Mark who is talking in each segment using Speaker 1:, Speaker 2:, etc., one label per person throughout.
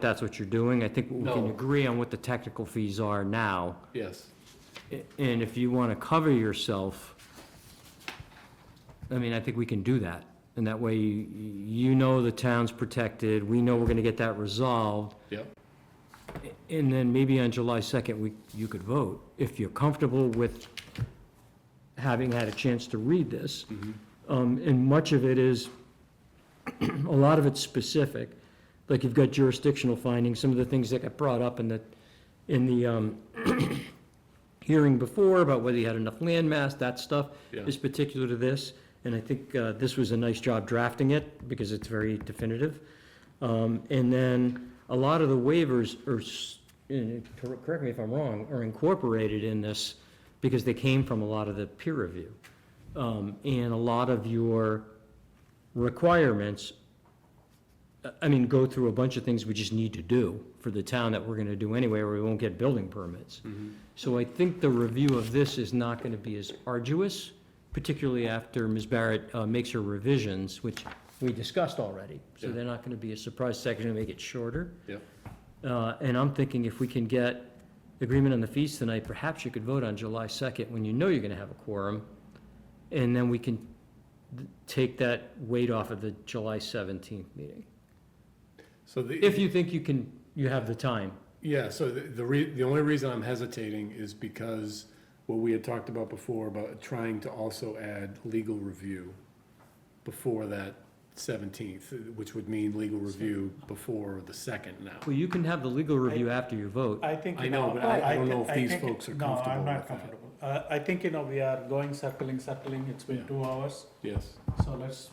Speaker 1: that's what you're doing. I think we can
Speaker 2: No.
Speaker 1: agree on what the technical fees are now.
Speaker 2: Yes.
Speaker 1: A- And if you want to cover yourself, I mean, I think we can do that. And that way, you- you know the town's protected, we know we're going to get that resolved.
Speaker 2: Yep.
Speaker 1: A- And then maybe on July 2nd, we, you could vote, if you're comfortable with having had a chance to read this. Um, And much of it is, a lot of it's specific, like you've got jurisdictional findings, some of the things that got brought up in the, in the um, hearing before about whether you had enough land mass, that stuff
Speaker 2: Yeah.
Speaker 1: is particular to this. And I think uh, this was a nice job drafting it, because it's very definitive. Um, And then a lot of the waivers are, s- and cor- correct me if I'm wrong, are incorporated in this because they came from a lot of the peer review. Um, And a lot of your requirements, I- I mean, go through a bunch of things we just need to do for the town that we're going to do anyway, or we won't get building permits.
Speaker 2: Mm-hmm.
Speaker 1: So I think the review of this is not going to be as arduous, particularly after Ms. Barrett uh, makes her revisions, which we discussed already. So
Speaker 2: Yeah.
Speaker 1: they're not going to be a surprise section to make it shorter.
Speaker 2: Yep.
Speaker 1: Uh, And I'm thinking if we can get agreement on the fees tonight, perhaps you could vote on July 2nd, when you know you're going to have a quorum, and then we can th- take that weight off of the July 17th meeting.
Speaker 2: So the.
Speaker 1: If you think you can, you have the time.
Speaker 2: Yeah, so the, the re, the only reason I'm hesitating is because what we had talked about before, about trying to also add legal review before that seventeenth, which would mean legal review before the second now.
Speaker 1: Well, you can have the legal review after you vote.
Speaker 3: I think.
Speaker 2: I
Speaker 3: you
Speaker 2: know, but I- I don't know
Speaker 3: thi-
Speaker 2: if
Speaker 3: I
Speaker 2: these
Speaker 3: think-
Speaker 2: folks are
Speaker 3: No,
Speaker 2: comfortable
Speaker 3: I'm
Speaker 2: with
Speaker 3: not
Speaker 2: that.
Speaker 3: comfortable. Uh, I think, you know, we are going circling, circling, it's been
Speaker 2: Yeah.
Speaker 3: two hours,
Speaker 2: Yes,
Speaker 3: so let's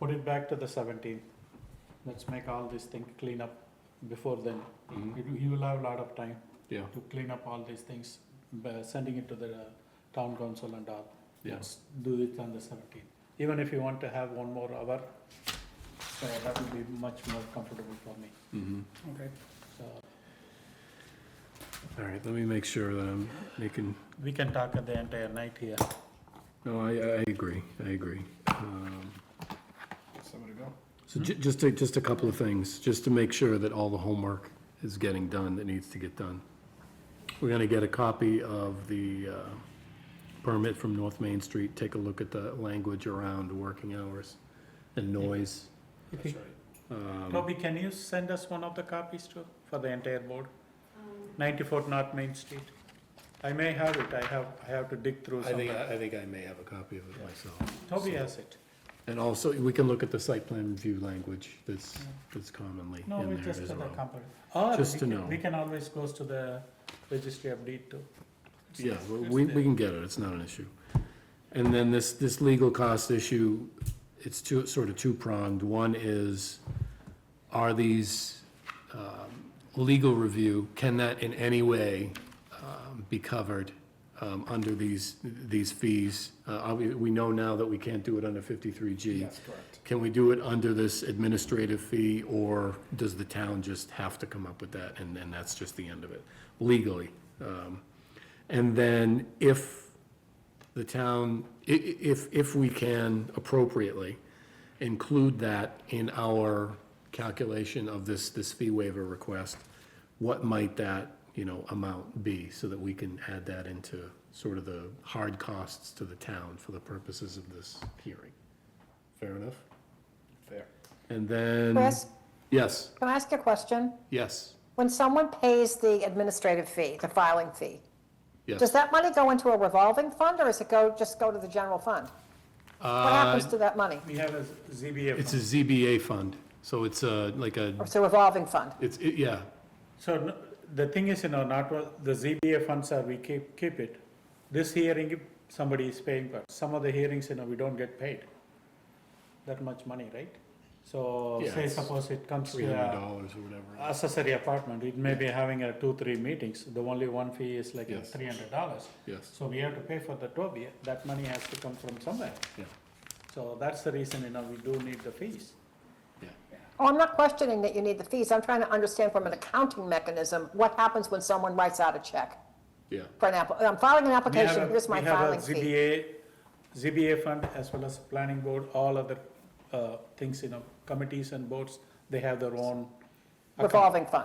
Speaker 3: put it back to the seventeenth. Let's make all this thing clean up before then.
Speaker 2: Mhm.
Speaker 3: You- You will have a lot of time
Speaker 2: yeah,
Speaker 3: to clean up all these things, by sending it to the uh, town council and all.
Speaker 2: Yeah.
Speaker 3: Let's do it on the seventeenth, even if you want to have one more hour, so that will be much more comfortable for me,
Speaker 2: mm-hmm.
Speaker 3: Okay. so.
Speaker 2: All right, let me make sure that I'm making,
Speaker 3: We can talk at the entire night here.
Speaker 2: no, I, I agree, I agree. Um,
Speaker 3: Somewhere to go.
Speaker 2: So ju- just to, just a couple of things, just to make sure that all the homework is getting done that needs to get done. We're gonna get a copy of the, uh, permit from North Main Street, take a look at the language around working hours and noise. Um,
Speaker 3: Toby, can you send us one of the copies too, for the entire board? Ninety-four North Main Street. I may have it, I have, I have to dig through
Speaker 2: I think,
Speaker 3: somewhere.
Speaker 2: I think I may have a copy of it myself.
Speaker 3: Toby has it.
Speaker 2: And also, we can look at the site plan review language that's, that's commonly
Speaker 3: No, we
Speaker 2: in there
Speaker 3: just
Speaker 2: as
Speaker 3: for the
Speaker 2: well.
Speaker 3: company. Or
Speaker 2: Just
Speaker 3: we
Speaker 2: to
Speaker 3: can-
Speaker 2: know.
Speaker 3: we can always goes to the registry of deed too. It's-
Speaker 2: Yeah,
Speaker 3: it's-
Speaker 2: well,
Speaker 3: it's
Speaker 2: we,
Speaker 3: there.
Speaker 2: we can get it, it's not an issue. And then this, this legal cost issue, it's two, sort of two-pronged. One is, are these, um, legal review, can that in any way, um, be covered, um, under these, these fees? Uh, are we, we know now that we can't do it under fifty-three G. That's correct. Can we do it under this administrative fee, or does the town just have to come up with that, and then that's just the end of it, legally? Um, and then if the town, i- i- if, if we can appropriately include that in our calculation of this, this fee waiver request, what might that, you know, amount be, so that we can add that into sort of the hard costs to the town for the purposes of this hearing? Fair enough? Fair. And then,
Speaker 4: Chris,
Speaker 2: yes,
Speaker 4: can I ask a question?
Speaker 2: yes,
Speaker 4: When someone pays the administrative fee, the filing fee, does
Speaker 2: yes.
Speaker 4: that money go into a revolving fund or does it go, just go to the general fund?
Speaker 3: Uh,
Speaker 4: What happens to that money?
Speaker 3: We have a ZBA.
Speaker 2: Uh, It's a
Speaker 3: fund.
Speaker 2: ZBA fund, so it's a, like a,
Speaker 4: Or It's a revolving fund?
Speaker 2: it's, it- yeah,
Speaker 3: So no- the thing is, you know, not, all- the ZBA funds are, we keep, keep it. This hearing, somebody is paying for. Some of the hearings, you know, we don't get paid that much money, right? So
Speaker 2: Yeah,
Speaker 3: say
Speaker 2: it's
Speaker 3: suppose it comes
Speaker 2: three
Speaker 3: to
Speaker 2: hundred
Speaker 3: a
Speaker 2: dollars or whatever.
Speaker 3: accessory apartment, it may be having a two, three meetings. The only one fee is like
Speaker 2: Yes.
Speaker 3: three hundred dollars.
Speaker 2: Yes,
Speaker 3: So we have to pay for the Toby, that money has to come from somewhere.
Speaker 2: yeah,
Speaker 3: So that's the reason, you know, we do need the fees.
Speaker 2: yeah.
Speaker 4: Oh, I'm not questioning that you need the fees. I'm trying to understand from an accounting mechanism, what happens when someone writes out a check
Speaker 2: Yeah,
Speaker 4: for an app, I'm filing an
Speaker 3: We have
Speaker 4: application,
Speaker 3: a-
Speaker 4: here's my
Speaker 3: we have a
Speaker 4: filing fee.
Speaker 3: ZBA, ZBA fund as well as planning board, all other uh, things, you know, committees and boards, they have their own
Speaker 4: revolving fund.